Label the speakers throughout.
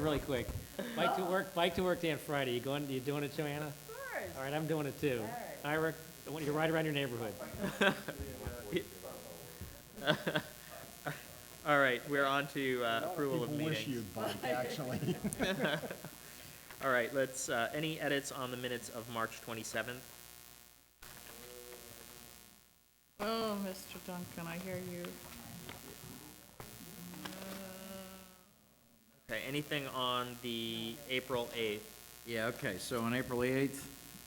Speaker 1: Really quick, bike to work, bike to work day on Friday, you going, you doing it, Joanna? All right, I'm doing it too.
Speaker 2: All
Speaker 1: I work, I want you to ride around your neighborhood.
Speaker 3: All right, we're on to uh, approval of
Speaker 4: People wish
Speaker 3: meetings.
Speaker 4: you'd bike, actually.
Speaker 3: All right, let's, uh, any edits on the minutes of March 27th?
Speaker 2: Oh, Mr. Duncan, I hear you. Uh,
Speaker 3: Okay, anything on the April 8th?
Speaker 5: Yeah, okay, so on April 8th,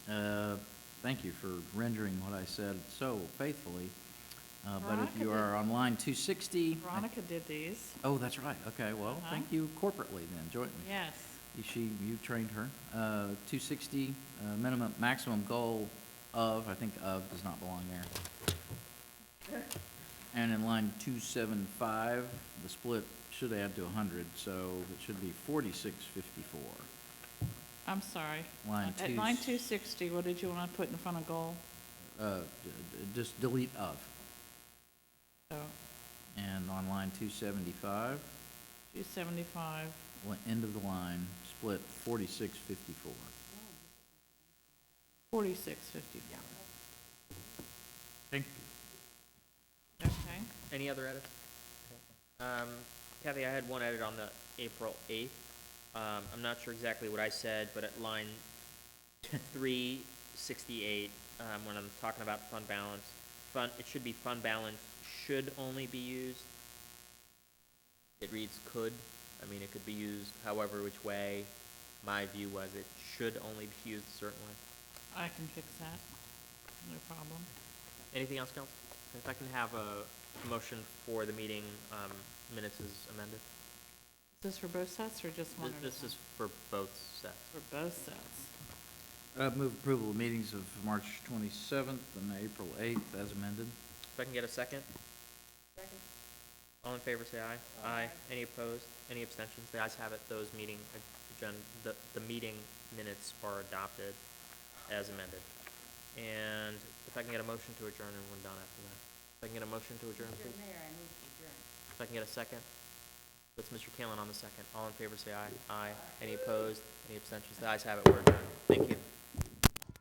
Speaker 5: uh, thank you for rendering what I said so faithfully. Uh, But if
Speaker 2: Veronica
Speaker 5: you
Speaker 2: did-
Speaker 5: are on line 260, I-
Speaker 2: Veronica did these,
Speaker 5: oh, that's right, okay, well,
Speaker 2: Uh-huh.
Speaker 5: thank you corporately then, jointly.
Speaker 2: yes.
Speaker 5: She, you trained her. Uh, 260, uh, minimum, maximum goal of, I think of does not belong there. And in line 275, the split should add to 100, so it should be 4654.
Speaker 2: I'm sorry.
Speaker 5: Line
Speaker 2: At
Speaker 5: two-
Speaker 2: line two sixty, what did you want to put in front of goal?
Speaker 5: Uh, d- d- just delete of.
Speaker 2: So,
Speaker 5: And on line two seventy-five,
Speaker 2: two seventy-five,
Speaker 5: end of the line, split forty-six fifty-four.
Speaker 2: forty-six fifty-four.
Speaker 3: Thank
Speaker 2: Okay,
Speaker 3: Any other edits? Um, Kathy, I had one edit on the April 8th. Um, I'm not sure exactly what I said, but at line 368, um, when I'm talking about fund balance, fund, it should be fund balance should only be used. It reads could. I mean, it could be used however which way. My view was it should only be used certainly.
Speaker 2: I can fix that, no problem.
Speaker 3: Anything else, council? If I can have a motion for the meeting, um, minutes is amended.
Speaker 2: Is this for both sets or just one?
Speaker 3: Th-
Speaker 2: at a
Speaker 3: This
Speaker 2: time?
Speaker 3: is for both sets.
Speaker 2: For both sets.
Speaker 5: Uh, move approval of meetings of March twenty-seventh and April eighth as amended.
Speaker 3: If I can get a second? All in favor, say aye. Aye. Any opposed? Any abstentions? The ayes have it. Those meeting agenda, the, the meeting minutes are adopted as amended. And if I can get a motion to adjourn and we're done after that. If I can get a motion to adjourn, please? If I can get a second? That's Mr. Kalin on the second. All in favor, say aye. Aye. Any opposed? Any abstentions? The ayes have it. We're adjourned. Thank you.